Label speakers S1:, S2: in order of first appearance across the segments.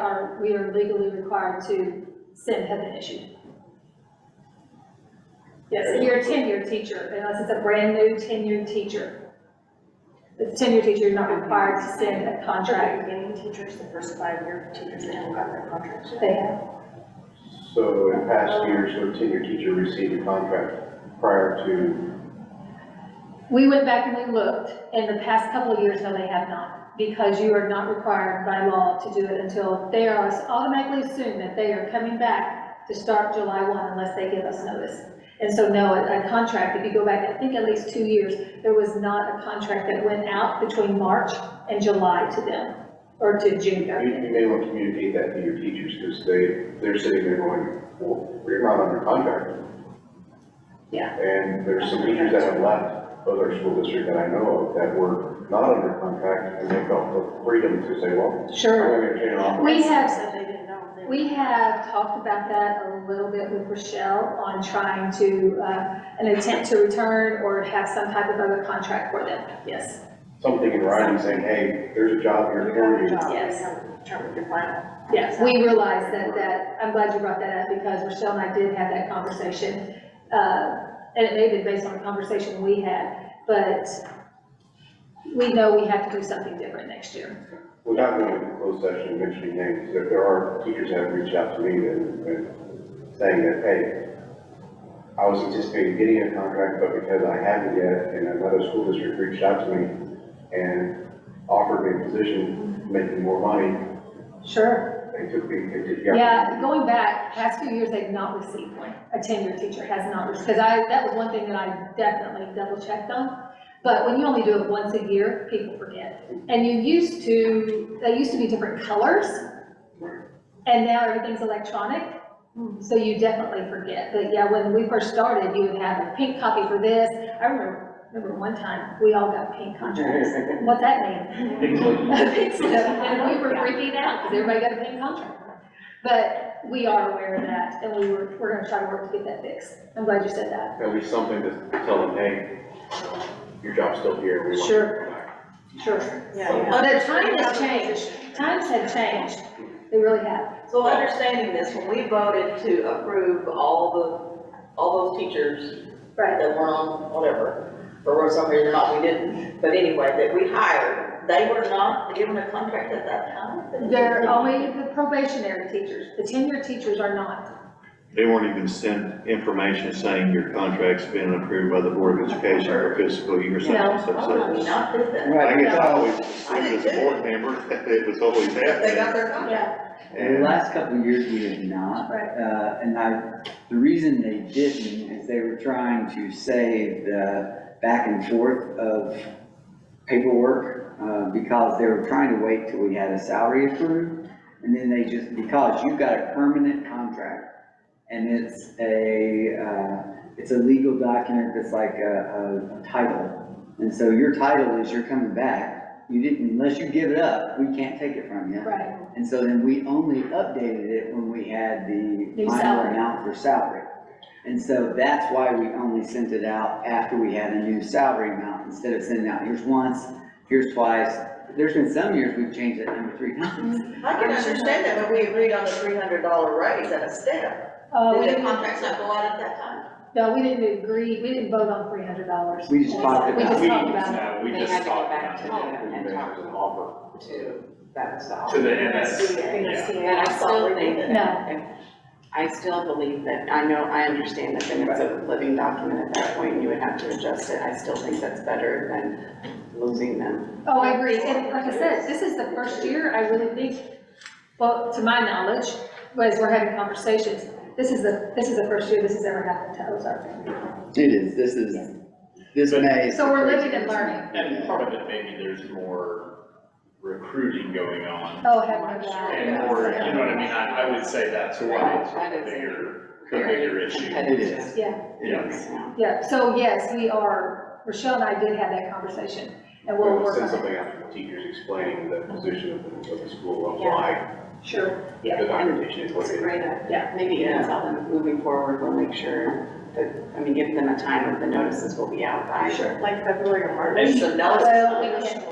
S1: are, we are legally required to send have been issued. Yes, and you're a tenured teacher, unless it's a brand-new tenured teacher. If it's a tenured teacher, you're not required to send a contract.
S2: Beginning teachers, the first five-year teachers that haven't gotten their contracts yet.
S1: They have,
S3: So in past years, when tenure teacher received a contract prior to,
S1: we went back and we looked, in the past couple of years, no, they have not, because you are not required by law to do it until they are automatically assumed that they are coming back to start July one unless they give us notice. And so no, a a contract, if you go back, I think at least two years, there was not a contract that went out between March and July to them, or to June, I
S3: you,
S1: mean.
S3: you may want to communicate that to your teachers, because they, they're sitting there going, well, we're not under contract.
S1: Yeah.
S3: And there's some teachers that have left other school district that I know of that were not under contract, and they felt the freedom to say, well, I'm
S1: Sure.
S3: gonna get an offer.
S1: We have-
S2: Said they didn't know. then.
S1: We have talked about that a little bit with Rochelle on trying to, uh, an attempt to return or have some type of other contract for them, yes.
S3: Something in writing saying, hey, there's a job here for
S2: You
S3: you.
S2: have a job,
S1: Yes.
S2: you haven't determined your final.
S1: Yes, we realize that, that, I'm glad you brought that up because Rochelle and I did have that conversation. uh, And it may have been based on a conversation we had, but we know we have to do something different next year.
S3: Without going into closed session and mentioning names, if there are teachers that have reached out to me and, and saying that, hey, I was anticipating getting a contract, but because I hadn't yet, and another school district reached out to me and offered me a position, making more money,
S1: Sure.
S3: they took me, they took. the
S1: Yeah, going back, past few years, they've not received one. A tenured teacher has not, because I, that was one thing that I definitely double checked on. But when you only do it once a year, people forget. And you used to, they used to be different colors. And now everything's electronic,
S2: hmm.
S1: so you definitely forget. But yeah, when we first started, you would have a pink copy for this. I remember, remember one time, we all got pink contracts. What's that mean? And we were freaking out, because everybody got a pink contract. But we are aware of that, and we were, we're gonna try to work to get that fixed. I'm glad you said that.
S3: At least something to tell them, hey, your job's still here, we want you
S1: Sure.
S3: to come back.
S1: Sure.
S2: Yeah.
S1: But the time has changed, times have changed, they really have.
S4: So understanding this, when we voted to approve all the, all those teachers that
S1: Right.
S4: were on whatever, for some reason or not, we didn't, but anyway, that we hired, they were not given a contract at that time?
S1: They're only the probationary teachers, the tenure teachers are not.
S5: They weren't even sent information saying your contract's been approved by the Board of Education for fiscal year such and such.
S4: Why would we
S5: such.
S4: Oh, not did that?
S5: I
S6: Right,
S5: guess I always assumed as a board member that it was always
S4: They got
S5: happening.
S4: their contract.
S1: Yeah.
S6: the last couple of years, we have not.
S1: Right.
S6: Uh, and I, the reason they didn't is they were trying to save the back and forth of paperwork, uh, because they were trying to wait till we had a salary approved, and then they just, because you've got a permanent contract, and it's a, uh, it's a legal document that's like a, a title, and so your title is you're coming back, you didn't, unless you give it up, we can't take it from you.
S1: Right,
S6: And so then we only updated it when we had the
S1: New
S6: final
S1: salary.
S6: amount for salary. And so that's why we only sent it out after we had a new salary amount, instead of sending out here's once, here's twice. There's been some years we've changed that number three times.
S4: I can understand that, but we agreed on a three hundred dollar raise at a step.
S1: uh, we
S4: Did the
S1: didn't,
S4: contracts not go out at that time?
S1: no, we didn't agree, we didn't vote on three hundred dollars.
S6: We just talked
S1: We
S6: about
S1: just
S6: it.
S1: talked about
S7: We
S2: They had
S7: just
S2: to go
S7: talked about
S2: back to
S7: it.
S2: home and
S3: Maybe
S2: talk
S3: there's an offer.
S2: to, that was the.
S7: To the MS.
S2: And I still think,
S1: it. No,
S2: I still believe that, I know, I understand that then it's a living document at that point, and you would have to adjust it, I still think that's better than losing them.
S1: Oh, I agree, and like I said, this is the first year, I really think, well, to my knowledge, as we're having conversations, this is the, this is the first year this has ever happened to Ozark.
S6: It is, this is, this May. is
S1: So we're
S6: the first
S1: living and
S6: year.
S1: learning.
S7: And part of it, maybe there's more recruiting going on.
S1: Oh, heaven, yeah.
S7: And more, you know what I mean, I, I would say that's why it's a bigger, a bigger issue.
S6: It is.
S1: Yeah.
S7: Yeah.
S1: yeah, so yes, we are, Rochelle and I did have that conversation, and we'll
S3: We'll
S1: work
S3: send
S1: on it.
S3: something out to the teachers explaining the position of the, of the school, of
S2: Yeah.
S3: why
S1: Sure,
S3: the documentation is what
S2: It's
S3: it
S2: a
S3: is.
S2: great, idea.
S1: Yeah.
S2: maybe even tell them moving forward, we'll make sure that, I mean, give them a time, of the notices will be out by.
S1: Sure.
S2: Like February or
S4: There's some notice.
S1: Well, we can-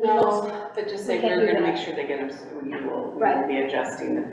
S1: Well,
S2: But just say,
S1: We can't
S2: we're
S1: do
S2: gonna
S1: that.
S2: make sure they get them, so we will, we
S1: Right.
S2: will be adjusting the